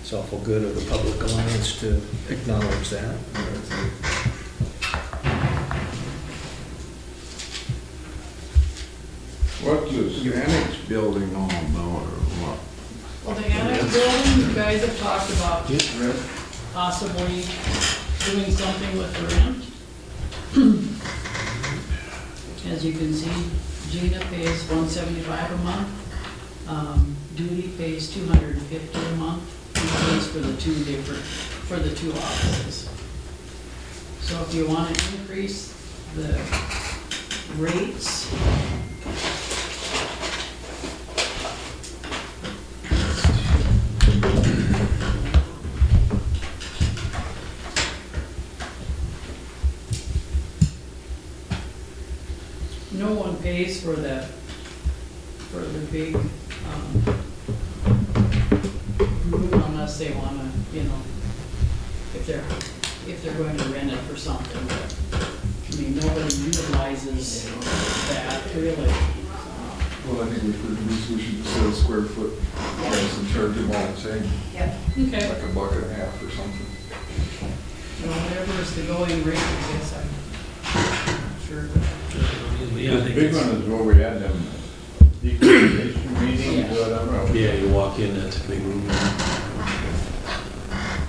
It's awful good of the Public Alliance to acknowledge that. What's this annex building all about or what? Well, the annex building, you guys have talked about Rick? possibly doing something with the rent. As you can see, Gina pays one seventy-five a month, um, Judy pays two hundred and fifty a month, and pays for the two different, for the two offices. So if you wanna increase the rates. No one pays for the, for the big, um, room unless they wanna, you know, if they're, if they're going to rent it for something, but, I mean, nobody utilizes that really. Well, I think we could, we we should just set a square foot price and charge them all the same, Okay. like a buck and a half or something. Whatever is the going rate, I guess I'm sure. The big one is where we had them decontamination meetings, whatever. Yeah, you walk in, that's a big room.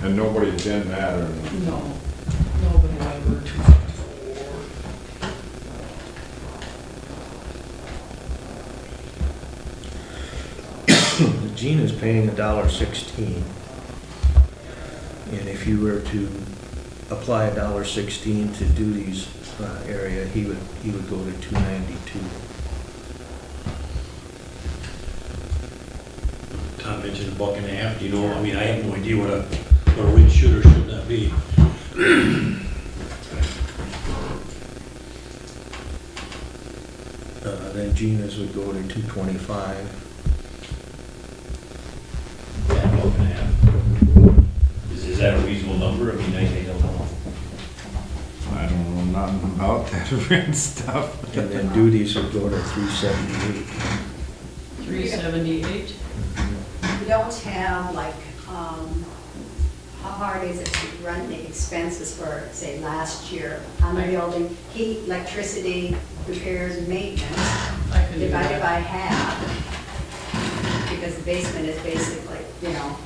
And nobody did that or nothing. No, nobody ever. Gina's paying a dollar sixteen. And if you were to apply a dollar sixteen to Duty's uh, area, he would, he would go to two ninety-two. Tom mentioned a buck and a half, you know, I mean, I have no idea what a, what a rate should or should not be. Uh, Then Gina's would go to two twenty-five. Yeah, buck and a half. Is, is that a reasonable number? I mean, I, I don't know. I don't know nothing about that rent stuff. And then Duty's would go to three seventy-eight. Three seventy-eight? We don't have like, um, how hard is it to run the expenses for, say, last year on the Right. building? Heat, electricity, repairs, and maintenance, I can do divided that. by half. Because the basement is basically, you know,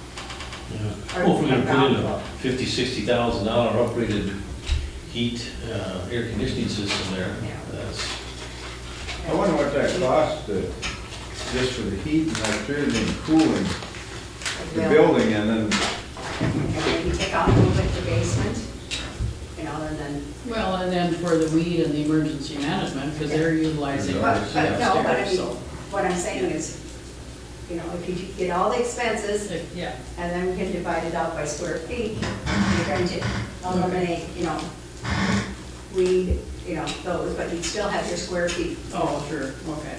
Yeah. Well, if we're gonna put in a fifty, sixty thousand dollar upgraded heat, uh, air conditioning system there, Yeah. that's, I wonder what that cost, uh, just for the heat and electricity and cooling, a the bill. building and then, And then you take off a little bit the basement, you know, and then, Well, and then for the weed and the emergency management, because they're utilizing but, ours but no, but I upstairs, mean, so. what I'm saying is, you know, if you get all the expenses, Yeah, and then we can divide it out by square feet. You're going to eliminate, you know, weed, you know, those, but you still have your square feet. oh, sure, okay.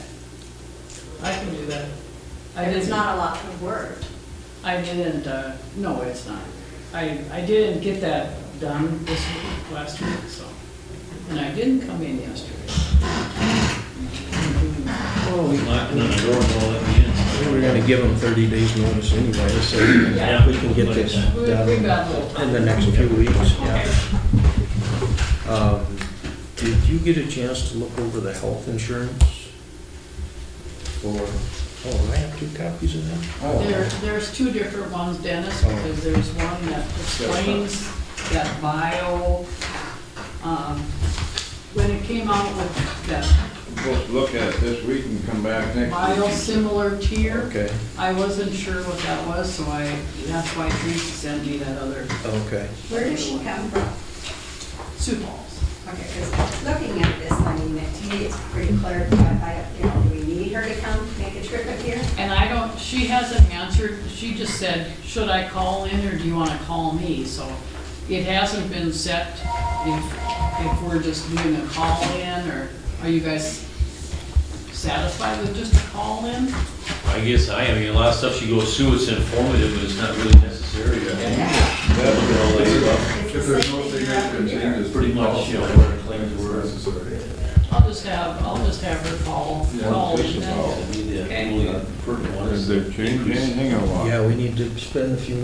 I can do that. I And it's didn't, not a lot of work. I didn't, uh, no, it's not. I, I didn't get that done this week, last week, so. And I didn't come in yesterday. knocking on the door and all that, yeah. We're gonna give them thirty days notice anyway, so we Yeah, we can get this We, we done got a little in time. the next few weeks, yeah. Okay. Um, Did you get a chance to look over the health insurance? Or, oh, I have two copies of that? oh, There, there's two different ones, Dennis, Oh. because there's one that explains that bio, um, when it came out with that we'll look at it this week and come back next week. biosimilar tier, Okay, I wasn't sure what that was, so I, that's why Teresa sent me that other okay. Where does she come from? soup balls. Okay, because looking at this, I mean, it- to me, it's pretty clarified, I, you know, do we need her to come make a trip up here? And I don't, she hasn't answered, she just said, should I call in or do you wanna call me? So it hasn't been set if, if we're just doing a call in or are you guys satisfied with just a call in? I guess I, am. I mean, a lot of stuff she goes through, it's informative, but it's not really necessary. I think. Yeah. That's what I'll let you up. It's the If there's same no thing significant up here. changes. Pretty much, you know, where the claims were. Necessary. I'll just have, I'll just have her call, Yeah, call just in a then. call. I mean, the Okay. Oh. only pertinent one is Has the there changed anything or what? Yeah, we need to spend a few minutes